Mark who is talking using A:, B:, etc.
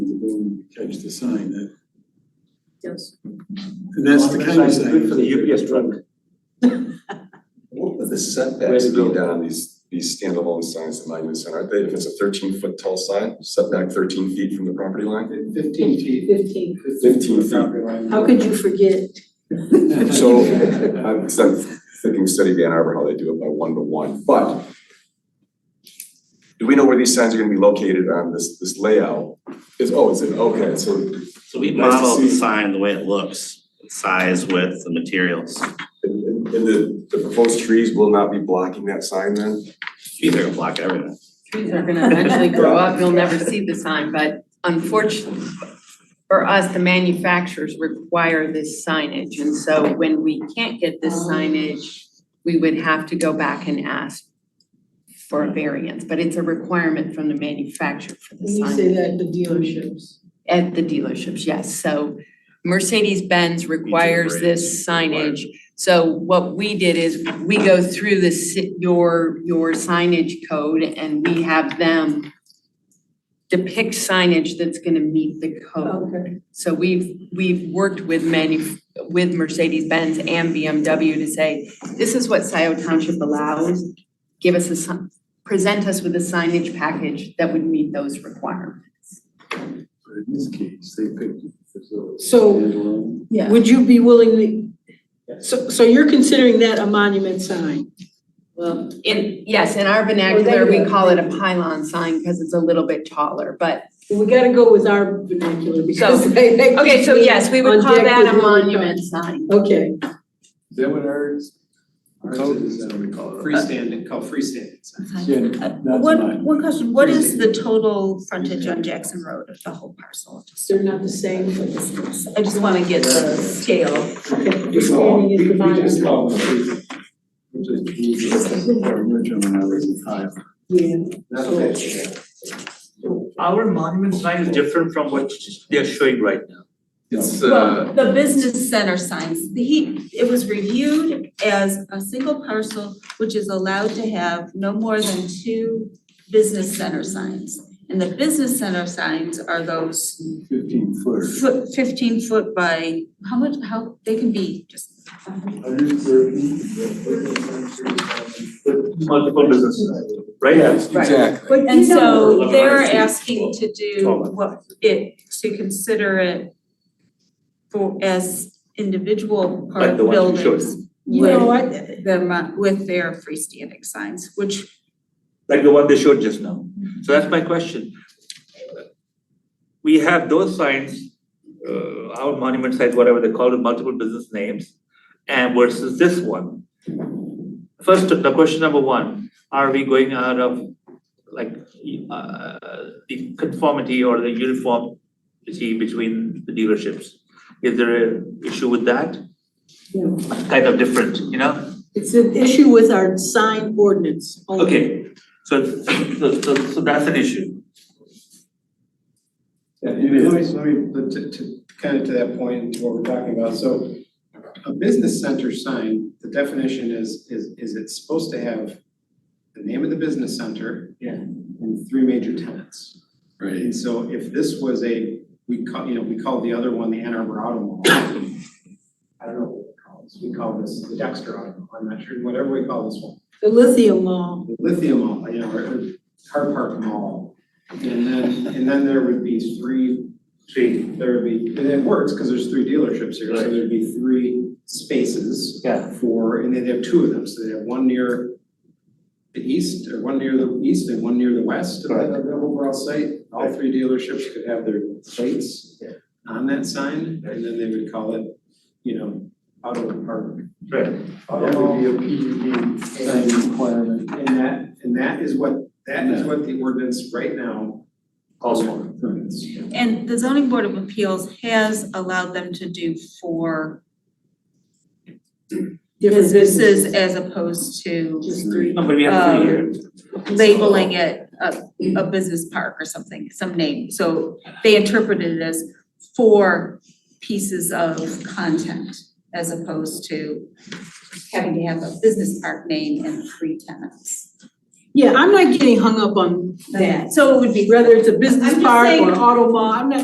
A: everyone would catch the sign that,
B: Yes.
A: and that's the kind of
C: Good for
A: sign.
C: the UPS truck.
D: What would the
C: Way
D: setbacks
C: to
D: be
C: go.
D: down on these, these standalone signs at Monument Center, aren't they, if it's a thirteen foot tall sign, setback thirteen feet from the property line?
C: Fifteen feet.
B: Fifteen.
D: Fifteen feet.
B: How could you forget?
D: So, I'm, 'cause I'm thinking study Van Arbor, how they do it by one to one, but do we know where these signs are gonna be located on this, this layout? Is, oh, is it, okay, so
E: So we
D: Nice to
E: modeled
D: see.
E: the sign the way it looks, size, width, the materials.
D: And and- and the the proposed trees will not be blocking that sign then?
E: Trees are gonna block everything.
F: trees are gonna eventually grow up, you'll never see the sign, but unfortunately for us, the manufacturers require this signage, and so when we can't get this signage, we would have to go back and ask for a variance, but it's a requirement from the manufacturer for the
B: When you
F: sign
B: say that, the dealerships.
F: at the dealerships, yes, so Mercedes-Benz requires this signage. So what we did is, we go through the ci- your, your signage code and we have them depict signage that's gonna meet the code.
B: Okay.
F: So we've, we've worked with manu, with Mercedes-Benz and BMW to say, this is what Scioto Township allows. Give us a, si- present us with a signage package that would meet those requirements.
A: But in this case, they picked it as though it's
B: So-
A: standalone.
F: Yeah.
B: Would you be willing to, so, so you're considering that a monument sign?
F: Well, in, yes, in our
B: there
F: vernacular,
B: you
F: we
B: go.
F: call it a pylon sign because it's a little bit taller, but,
B: We gotta go with our vernacular because they. they
F: okay, so
B: put me
F: yes, we would
B: on
F: call
B: deck
F: that
B: with
F: a
B: no regard.
F: monument sign.
B: Okay,
C: Is that what ours? Ours
A: Code
C: is,
A: is
C: uh,
A: what we call it.
C: freestanding, called freestanding sign.
A: Yeah, that's
G: One,
A: mine.
G: one question, what is the total frontage on Jackson Road of the whole parcel?
B: they're not the same.
G: I just wanna get the scale.
B: Standing is the monument.
A: Our original one, I was in high.
B: Yeah,
H: Our monument sign is different from what they are showing right now.
C: It's
G: Well, the business center signs, the he, it was reviewed as a single parcel, which is allowed to have no more than two business center signs. And the business center signs are those
A: Fifteen foot.
G: foot, fifteen foot by, how much, how, they can be just
A: Hundred thirty.
H: Multiple businesses, right?
D: Exactly.
G: And so
H: know-
G: they're asking to do
H: Twelve.
G: what it, to consider it for as individual part
H: Like the ones you showed.
G: buildings
B: you know,
G: with
B: I,
G: the mo- with their freestanding signs, which
H: Like the one they showed just now. So that's my question. We have those signs, uh, our monument signs, whatever they call it, multiple business names, and versus this one. First, the question number one, are we going out of like uh the conformity or the uniformity between the dealerships? Is there a issue with that?
B: No.
H: Kind of different, you know?
B: it's an issue with our sign ordinance only.
H: Okay, so so so so that's an issue.
C: Yeah, let me, let me, let- to, to, kind of to that point, and to what we're talking about, so a business center sign, the definition is, is, is it's supposed to have the name of the business center.
H: Yeah.
C: And three major tenants.
A: Right.
C: And so if this was a, we call, you know, we call the other one the Ann Arbor Auto Mall. I don't know what we call this, we call this the Dexter Auto Mall, I'm not sure, whatever we call this one.
B: The lithium law,
C: The Lithium Mall, you know, or or Car Park Mall. And then, and then there would be three
H: Three.
C: there would be, and it works, cause there's three dealerships here, so
H: Right.
C: there'd be three spaces.
H: Yeah.
C: For, and they'd have two of them, so they'd have one near the east, or one near the east and one near the west of the,
H: Correct.
C: of the overall site. All three dealerships could have their plates
H: Yeah.
C: on that sign, and then they would call it, you know, Auto Park.
H: Right.
C: Auto Mall.
A: a PUD sign requirement.
C: And that, and that is what, that is what the ordinance right now.
H: Calls
C: for. Permits.
G: and the zoning board of appeals has allowed them to do for
B: different businesses.
G: businesses as opposed to
B: Just three.
H: No, but we have three here.
G: labeling it a a business park or something, some name. So they interpreted it as for pieces of content as opposed to having to have a business park name and three tenants.
B: Yeah, I'm not getting hung up on that.
G: So it would be
B: Whether it's a business
G: I'm just
B: park
G: saying-
B: or an auto mall, I'm not